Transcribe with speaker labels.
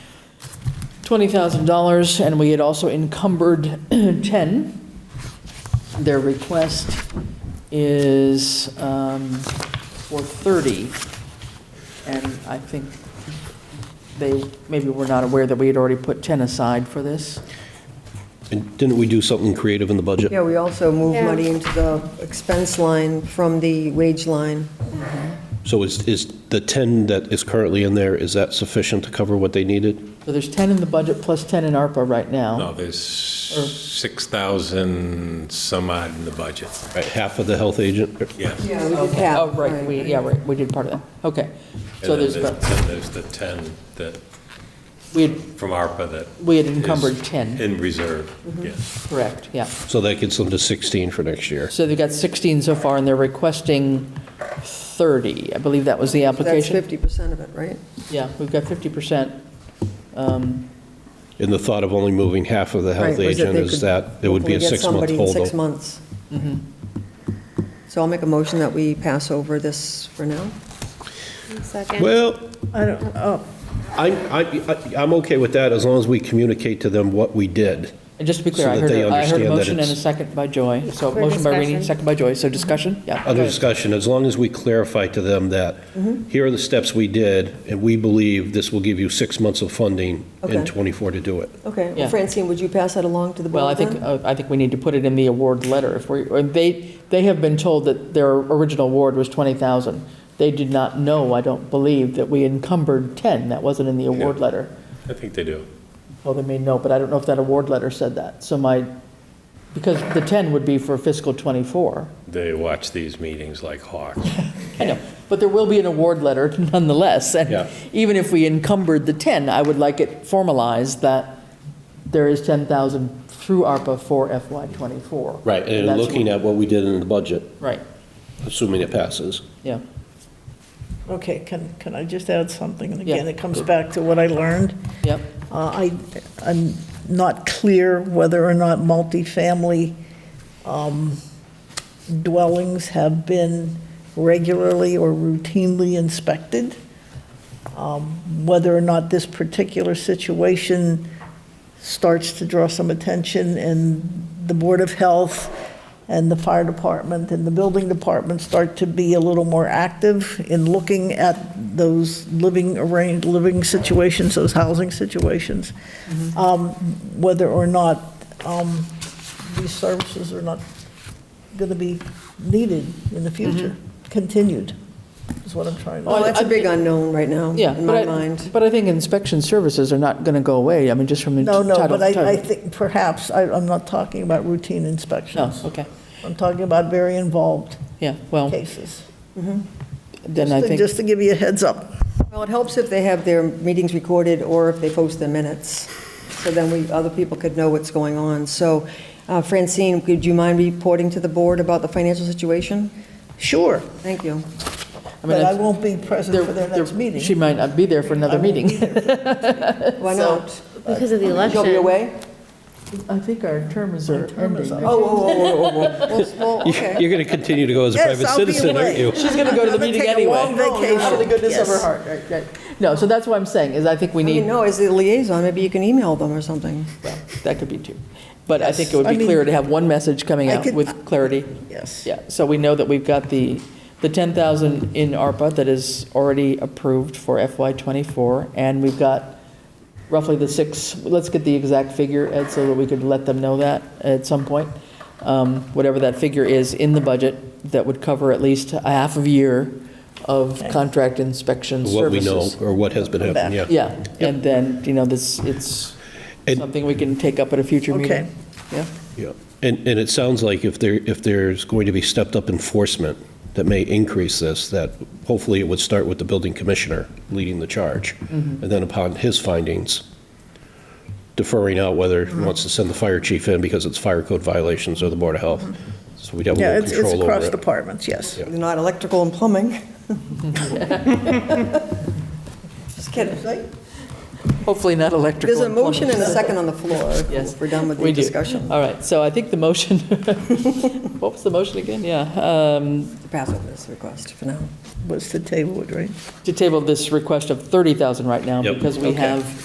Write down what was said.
Speaker 1: $20,000, and we had also encumbered 10. Their request is um, for 30, and I think they maybe were not aware that we had already put 10 aside for this.
Speaker 2: And didn't we do something creative in the budget?
Speaker 3: Yeah, we also move
Speaker 4: Yeah.
Speaker 3: money into the expense line from the wage line.
Speaker 2: So is, is the 10 that is currently in there, is that sufficient to cover what they needed?
Speaker 1: So there's 10 in the budget plus 10 in ARPA right now.
Speaker 5: No, there's 6,000 some odd in the budget.
Speaker 2: Right, half of the health agent?
Speaker 5: Yes.
Speaker 3: Yeah, we did
Speaker 1: Oh, right, we, yeah, right, we did part of that, okay. So
Speaker 5: And then
Speaker 1: there's,
Speaker 5: there's,
Speaker 1: about-
Speaker 5: then there's the 10 that,
Speaker 1: we had,
Speaker 5: from ARPA that.
Speaker 1: we had
Speaker 5: is
Speaker 1: encumbered Mm-hmm. 10,
Speaker 5: In reserve, yes.
Speaker 1: correct, yeah.
Speaker 2: So that gets them to 16 for next year.
Speaker 1: So they've got 16 so far, and they're requesting 30. I believe that was the
Speaker 3: That's
Speaker 1: application.
Speaker 3: 50% of it, right?
Speaker 1: Yeah, we've got 50%. Um,
Speaker 2: And the thought of only moving half of the
Speaker 3: Right,
Speaker 2: health
Speaker 3: was that
Speaker 2: agent
Speaker 3: they
Speaker 2: is
Speaker 3: could
Speaker 2: that it would be a
Speaker 3: hopefully get
Speaker 2: six-month
Speaker 3: somebody in six
Speaker 2: holdover.
Speaker 3: months.
Speaker 1: Mm-hmm.
Speaker 3: So I'll make a motion that we pass over this for now.
Speaker 4: Second.
Speaker 2: Well, I don't, oh. I, I, I'm okay with that as long as we communicate to them what we did.
Speaker 1: And just to be clear,
Speaker 2: So
Speaker 1: I
Speaker 2: that
Speaker 1: heard,
Speaker 2: they
Speaker 1: a- I heard
Speaker 2: understand
Speaker 1: a
Speaker 2: that
Speaker 1: motion and a
Speaker 2: it's-
Speaker 1: second by Joy. So
Speaker 4: For
Speaker 1: motion by Rini,
Speaker 4: discussion.
Speaker 1: second by Joy, so discussion, yeah.
Speaker 2: Other
Speaker 1: good.
Speaker 2: discussion, as long as we clarify to them that
Speaker 3: Mm-hmm.
Speaker 2: here are the steps we did and we believe this will give you six months of funding in
Speaker 3: Okay.
Speaker 2: 24 to do it.
Speaker 3: Okay,
Speaker 1: Yeah.
Speaker 3: well, Francine, would you pass that along to the
Speaker 1: Well, I
Speaker 3: board then?
Speaker 1: think, uh, I think we need to put it in the award letter. If we, or they, they have been told that their original award was 20,000. They did not know, I don't believe, that we encumbered 10. That wasn't in the award letter.
Speaker 5: I think they do.
Speaker 1: Well, they may know, but I don't know if that award letter said that. So my, because the 10 would be for fiscal '24.
Speaker 5: They watch these meetings like hawks.
Speaker 1: I know, but there will be an award letter nonetheless.
Speaker 5: Yeah.
Speaker 1: And even if we encumbered the 10, I would like it formalized that there is 10,000 through ARPA for FY '24.
Speaker 2: Right, and
Speaker 1: That's-
Speaker 2: looking at what we did in the budget,
Speaker 1: Right,
Speaker 2: assuming it passes.
Speaker 1: yeah.
Speaker 6: Okay, can, can I just add something? And
Speaker 1: Yeah.
Speaker 6: again, it comes back to what I learned.
Speaker 1: Yep,
Speaker 6: Uh, I, I'm not clear whether or not multifamily um, dwellings have been regularly or routinely inspected. Um, Whether or not this particular situation starts to draw some attention and the Board of Health and the Fire Department and the Building Department start to be a little more active in looking at those living arranged, living situations, those housing situations, um, whether or not um, these services are not going to be needed in the future, continued, is what I'm trying to
Speaker 3: Well,
Speaker 1: I-
Speaker 3: Oh, that's a
Speaker 1: I-
Speaker 3: big unknown right now,
Speaker 1: yeah.
Speaker 3: in
Speaker 1: but
Speaker 3: my
Speaker 1: I-
Speaker 3: mind.
Speaker 1: But I think inspection services are not going to go away, I mean, just from the
Speaker 6: No,
Speaker 1: title.
Speaker 6: no, but I, I
Speaker 1: title.
Speaker 6: think perhaps, I, I'm not talking about routine
Speaker 1: No,
Speaker 6: inspections.
Speaker 1: okay,
Speaker 6: I'm talking about very involved
Speaker 1: yeah, well,
Speaker 6: cases.
Speaker 1: then I
Speaker 6: Just to-
Speaker 1: think.
Speaker 6: Just to give you a heads up.
Speaker 3: Well, it helps if they have their meetings recorded or if they post the minutes, so then we, other people could know what's going on. So uh, Francine, would you mind reporting to the board about the financial situation?
Speaker 6: Sure,
Speaker 3: Thank you.
Speaker 1: I mean,
Speaker 6: but I
Speaker 1: if
Speaker 6: won't be
Speaker 1: there-
Speaker 6: present for their
Speaker 1: there-
Speaker 6: next meeting.
Speaker 1: She might not be there for another meeting.
Speaker 3: Why not?
Speaker 4: Because of the election.
Speaker 3: You'll be away?
Speaker 1: I think our terms are ending.
Speaker 3: Oh, oh, oh, oh, oh, oh. Well, well, okay.
Speaker 2: You're going to continue to go as a
Speaker 6: Yes,
Speaker 2: private
Speaker 6: I'll be
Speaker 2: citizen, aren't
Speaker 6: away.
Speaker 2: you?
Speaker 1: She's going to go to the
Speaker 6: I'm gonna
Speaker 1: meeting
Speaker 6: take a
Speaker 1: anyway.
Speaker 6: long vacation.
Speaker 1: Out of the goodness of her
Speaker 6: Yes.
Speaker 1: heart, right, right. No, so that's what I'm saying, is I think we
Speaker 3: I mean,
Speaker 1: need,
Speaker 3: no, as the liaison, maybe you can email them or something.
Speaker 1: well, that could be two. But I think it would
Speaker 6: I
Speaker 1: be
Speaker 6: mean-
Speaker 1: clearer to have one message coming
Speaker 6: I
Speaker 1: out
Speaker 6: could-
Speaker 1: with clarity.
Speaker 6: Yes.
Speaker 1: Yeah, so we know that we've got the, the 10,000 in ARPA that is already approved for FY '24, and we've got roughly the six, let's get the exact figure, Ed, so that we could let them know that at some point, Um, whatever that figure is in the budget, that would cover at least a half of year of contract inspection services.
Speaker 2: What we know, or what has been happening, yeah.
Speaker 1: Yeah, and then, you know, this, it's
Speaker 2: And-
Speaker 1: something we can take up at a future
Speaker 6: Okay.
Speaker 1: meeting. Yeah,
Speaker 2: Yeah. And, and it sounds like if there, if there's going to be stepped-up enforcement that may increase this, that hopefully it would start with the building commissioner leading the charge,
Speaker 6: Mm-hmm.
Speaker 2: and then upon his findings, deferring out whether he wants to send the fire chief in because it's fire code violations or the Board of Health, so we'd have
Speaker 6: Mm-hmm. Yeah,
Speaker 2: more
Speaker 6: it's, it's
Speaker 2: control
Speaker 6: across
Speaker 2: over it.
Speaker 6: departments, yes.
Speaker 2: Yeah.
Speaker 3: Not electrical and plumbing. Just kidding.
Speaker 1: hopefully not electrical.
Speaker 3: There's a
Speaker 1: and plumbing.
Speaker 3: motion and a second on the floor.
Speaker 1: Yes.
Speaker 3: We're done with
Speaker 1: We
Speaker 3: the
Speaker 1: do.
Speaker 3: discussion.
Speaker 1: All right, so I think the motion, what was the motion again? Yeah, um,
Speaker 3: To pass over this request for now.
Speaker 6: Was to table it, right?
Speaker 1: to table this request of 30,000 right now
Speaker 2: Yep.
Speaker 1: because we
Speaker 6: Okay.
Speaker 1: have